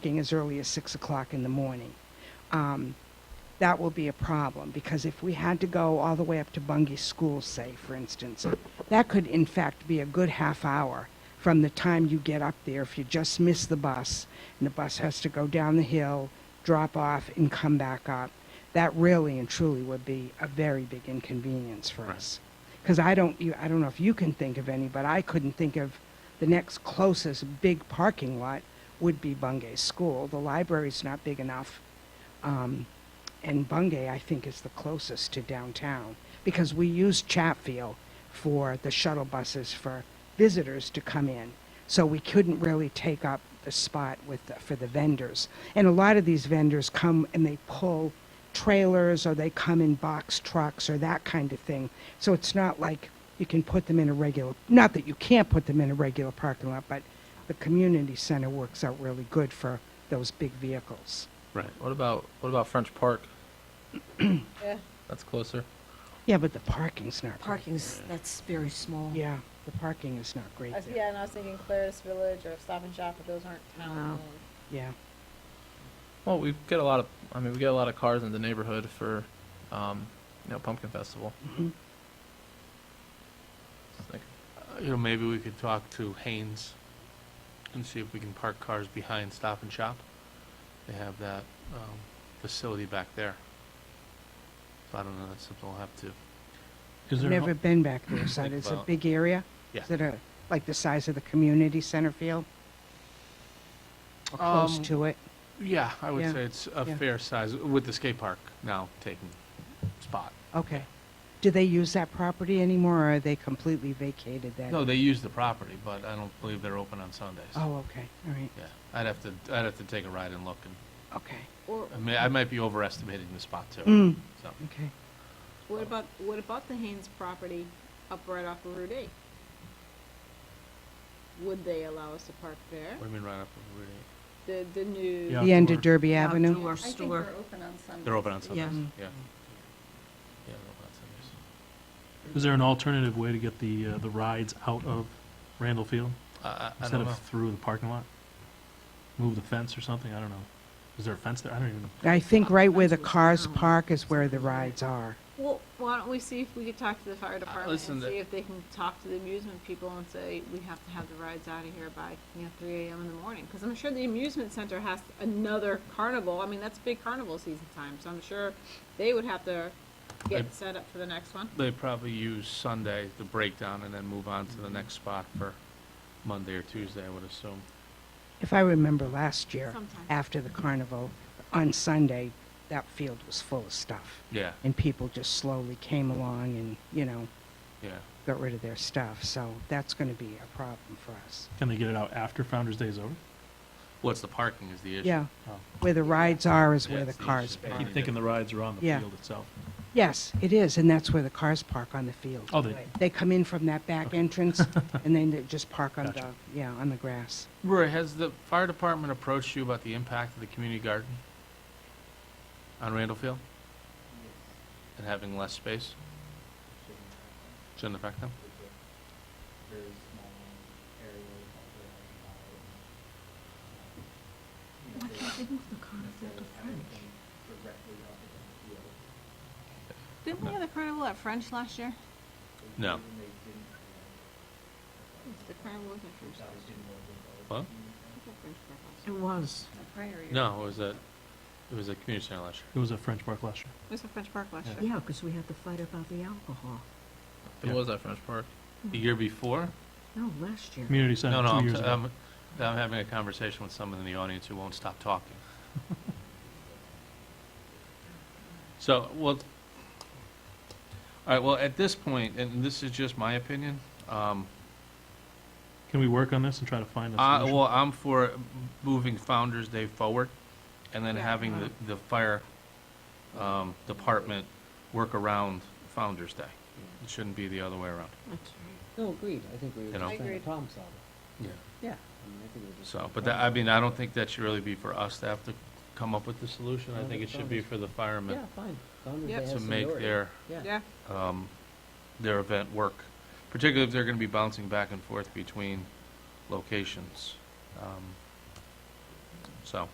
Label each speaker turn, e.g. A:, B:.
A: working as early as 6 o'clock in the morning. Um, That will be a problem, because if we had to go all the way up to Bungay School, say, for instance, that could in fact be a good half hour from the time you get up there if you just miss the bus, and the bus has to go down the hill, drop off, and come back up. That really and truly would be a very big inconvenience for
B: Right.
A: us. Because I don't, you, I don't know if you can think of any, but I couldn't think of the next closest big parking lot would be Bungay School. The library's not big enough. Um, and Bungay, I think, is the closest to downtown because we use Chatfield for the shuttle buses for visitors to come in. So we couldn't really take up the spot with the, for the vendors. And a lot of these vendors come and they pull trailers or they come in box trucks or that kind of thing. So it's not like you can put them in a regular, not that you can't put them in a regular parking lot, but the community center works out really good for those big vehicles.
B: Right. What about what about French Park?
C: Yeah.
B: That's closer.
A: Yeah, but the parking's not great.
D: Parking's, that's very small.
A: Yeah, the parking is not great
C: I was-
A: there.
C: Yeah, and I was thinking Claris Village or Stop and Shop, but those aren't town.
D: No.
A: Yeah,
B: Well, we get a lot of. I mean, we get a lot of cars in the neighborhood for, um, you know, Pumpkin Festival.
A: Mhm.
B: Just think-
E: You know, maybe we could talk to Haynes and see if we can park cars behind Stop and Shop. They have that, um, facility back there. So I don't know, that's something we'll have to.
A: I've never been back there, so
E: Think
A: it's a
E: about-
A: big area?
E: Yeah.
A: Is it a, like the size of the community center field? Or close
E: Um,
A: to it?
E: Yeah, I
A: Yeah,
E: would say it's a
A: yeah.
E: fair size, with the skate park now taking spot.
A: Okay. Do they use that property anymore, or are they completely vacated that?
E: No, they use the property, but I don't believe they're open on Sundays.
A: Oh, okay, all right,
E: Yeah, I'd have to, I'd have to take a ride and look, and,
A: okay,
C: Or
E: I mean, I might be overestimating the spot too,
A: Mm.
E: so.
A: okay.
C: what about, what about the Haynes property up right off of Route 8? Would they allow us to park there?
E: What do you mean right up of Route eight?
C: The, the new.
E: Yeah.
A: The end
E: Outdoor.
A: of Derby Avenue?
D: Outdoor store.
C: open on Sunday.
E: They're open on
D: Yeah.
E: Sundays, yeah. Yeah, they're open on Sundays.
F: Is there an alternative way to get the, uh, the rides out of Randall Field?
E: I- I, I
F: Instead
E: don't know.
F: of through the parking lot? Move the fence or something, I don't know. Is there a fence there? I don't even,
A: I think right where the cars park is where the rides are.
C: Well, why don't we see if we could talk to the fire department
E: Uh, listen,
C: and
E: the-
C: see if they can talk to the amusement people and say, we have to have the rides out of here by, you know, three AM in the morning. Cause I'm sure the amusement center has another carnival. I mean, that's big carnival season time, so I'm sure they would have to
E: I-
C: get set up for the next one.
E: They probably use Sunday, the breakdown, and then move on to the next spot for Monday or Tuesday, I would assume.
A: If I remember last year,
C: Sometimes.
A: after the carnival, on Sunday, that field was full of stuff.
E: Yeah,
A: And people just slowly came along and, you know,
E: yeah.
A: got rid of their stuff. So that's going to be a problem for us.
F: can they get it out after Founder's Day is over?
E: What's the parking is the issue.
A: Yeah,
F: Oh.
A: where the rides are is
E: Yeah,
A: where the
E: it's the
A: cars
E: issue.
F: I
A: park.
F: keep thinking the rides are on the
A: Yeah.
F: field itself.
A: Yes, it is, and that's where the cars park on the field.
F: Oh, they,
A: They come in from that back entrance and then they just park on the,
F: Gotcha.
A: yeah, on the grass.
E: Rory, has the fire department approached you about the impact of the community garden on Randall Field? And having less space? Shouldn't affect them?
G: very small area of the, uh, you know, they necessarily have anything directly up against the field.
C: Didn't we have the carnival at French last year?
E: No.
G: And they didn't, uh,
C: The carnival was at French.
G: that didn't work with
E: What?
C: I think at French Park last
D: It
C: year.
D: was.
E: No, it was at, it was at community center last
F: it was at French Park last year.
C: It was at French Park last
F: Yeah.
C: year.
D: Yeah, because we had the fight about the alcohol.
B: It
F: Yeah.
B: was at French Park.
E: year. The year before?
D: No, last year.
F: Community
E: No,
F: Center,
E: no,
F: two
E: I'm,
F: years
E: t- um,
F: ago.
E: I'm, I'm having a conversation with someone in the audience who won't stop talking. So, well, all right, well, at this point, and this is just my opinion, um,
F: Can we work on this and try to find a
E: I,
F: solution?
E: well, I'm for moving Founder's Day forward and then
C: Yeah.
E: having
D: uh-huh.
E: the, the fire, um, department work around Founder's Day. It shouldn't be the other way around.
D: That's right.
G: No, agreed, I think we
E: You know?
C: just trying to
G: problem solver.
E: Yeah.
G: Yeah. I mean, I think we're
E: So, but that, I mean, I don't think that should really be for us to have to come up with the solution. I
G: Yeah,
E: think it
G: that's
E: should be
G: fine.
E: for the firemen
G: fine.
C: Day has
E: to make their,
C: Yeah,
E: um, their event work, particularly if they're gonna be bouncing back and forth between locations. Um, So,